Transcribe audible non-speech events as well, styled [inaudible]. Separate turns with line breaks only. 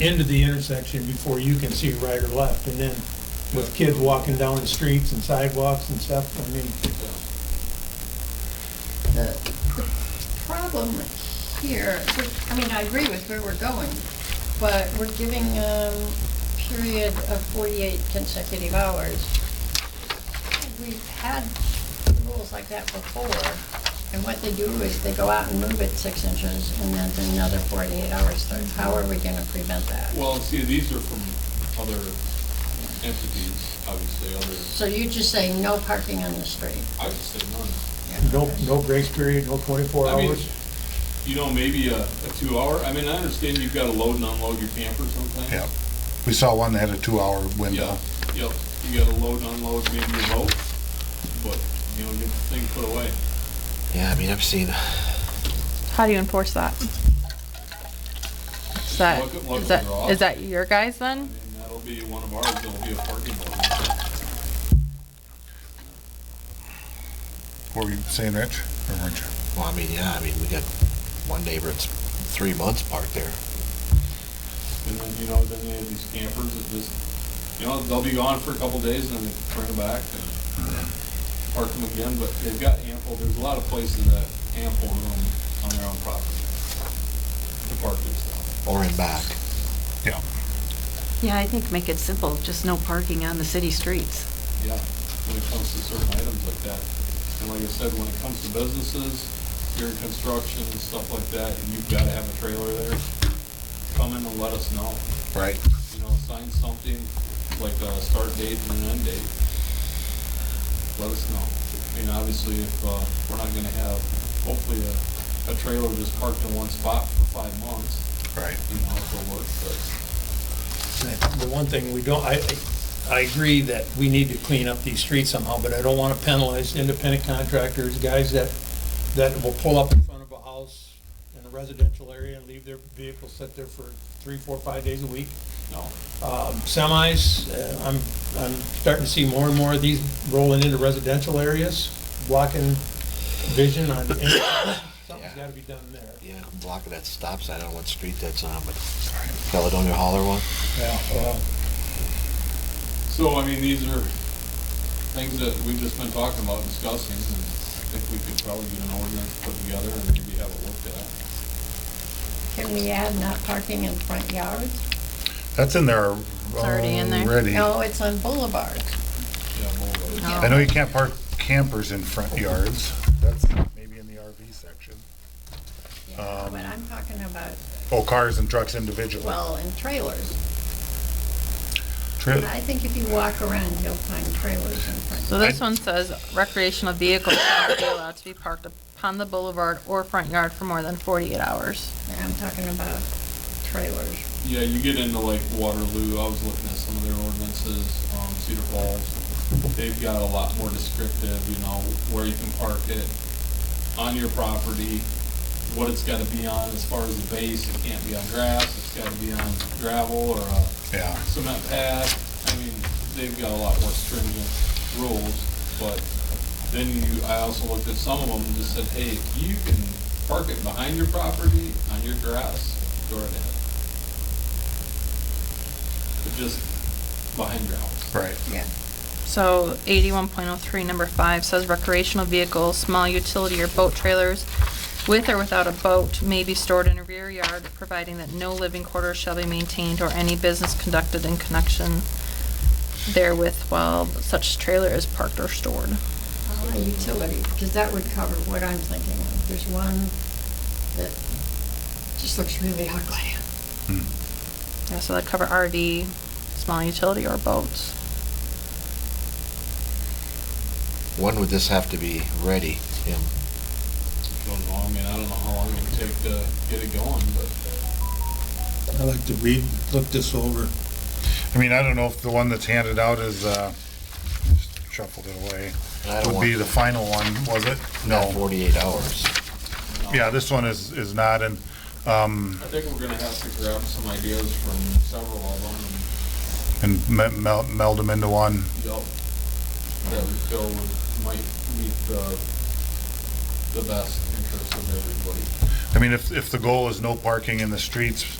into the intersection before you can see right or left. And then with kids walking down the streets and sidewalks and stuff, I mean,
The the problem here, which, I mean, I agree with where we're going, but we're giving a period of 48 consecutive hours. We've had rules like that before, and what they do is they go out and move it six inches, and then another 48 hours starts. How are we going to prevent that?
Well, see, these are from other entities, obviously, other,
So you just say no parking on the street?
I would say none.
no, no grace period, no twenty-four
I mean,
hours.
you know, maybe a, a two hour, I mean, I understand you've gotta load and unload your camper sometimes.
Yeah, we saw one that had a two-hour window.
Yeah, yep, you gotta load and unload maybe your boat, but, you know, get the thing put away.
Yeah, I mean, I've seen.
How do you enforce that? Is that,
Look at- look
is
at
that,
the law.
is that your guys then?
And that'll be one of ours, that'll be a parking lot.
What were you saying, Rich? Or weren't you?
Well, I mean, yeah, I mean, we got one neighbor that's three months parked there.
And then, you know, then they have these campers that just, you know, they'll be gone for a couple days and then they bring them back and park them again, but they've got ample, there's a lot of places that have ample room on their own property to park their stuff.
Or in back.
Yeah.
Yeah, I think make it simple, just no parking on the city streets.
Yeah, when it comes to certain items like that. And like I said, when it comes to businesses, you're in construction and stuff like that, and you've gotta have a trailer there, come in and let us know.
Right.
you know, sign something, like a start date and an end date. Let us know. And obviously, if, uh, we're not gonna have, hopefully, a, a trailer just parked in one spot for five months,
Right.
you know, if it works, but
The one thing we don't, I, I- I agree that we need to clean up these streets somehow, but I don't want to penalize independent contractors, guys that, that will pull up in front of a house in a residential area and leave their vehicle sit there for three, four, five days a week.
no.
Um, Semis, uh, I'm, I'm starting to see more and more of these rolling into residential areas, blocking vision on, [coughs] something's got to be done there.
Yeah, I'm blocking that stop sign. I don't know what street that's on, but Caledonia Holler one.
Yeah, well,
So, I mean, these are things that we've just been talking about, discussing, and I think we could probably get an ordinance put together and maybe have it looked at.
Can we add not parking in front yards?
That's in there
already in there. Oh.
already.
No, it's on boulevards.
Yeah, we'll, uh,
I know you can't park campers in front yards. That's maybe in the RV section.
Yeah, but I'm talking about,
Oh, cars and trucks individually.
well, in trailers.
True.
I think if you walk around, you'll find trailers in
So
front.
this one says recreational vehicles cannot be allowed to be parked upon the boulevard or front yard for more than forty-eight hours.
I'm talking about trailers.
Yeah, you get into like Waterloo, I was looking at some of their ordinances, um, Cedar Falls, they've got a lot more descriptive, you know, where you can park it, on your property, what it's gotta be on as far as the base, it can't be on grass, it's gotta be on gravel or a
Yeah.
cement pad, I mean, they've got a lot more stringent rules, but then you, I also looked at some of them and just said, hey, you can park it behind your property, on your grass, go right ahead but just behind your house.
Right.
Yeah.
So eighty-one point oh three, number five says recreational vehicles, small utility or boat trailers with or without a boat may be stored in a rear yard, providing that no living quarters shall be maintained or any business conducted in connection therewith while such trailer is parked or stored.
Uh, Utility, because that would cover what I'm thinking of. There's one that just looks really ugly.
Hmm.
Yeah, so that cover RV, small utility or boats.
When would this have to be ready? Yeah.
Don't know, I mean, I don't know how long it would take to get it going, but
I like to read, look this over.
I mean, I don't know if the one that's handed out is, uh, shuffled it away.
And I don't
Would
want
be the final one, was it?
not
No.
48 hours.
Yeah, this one is, is not in, um,
uh, I think we're gonna have to grab some ideas from several of them and,
and me- mel- meld them into one.
yup, that we feel would, might meet the, the best interest of everybody.
I mean, if, if the goal is no parking in the streets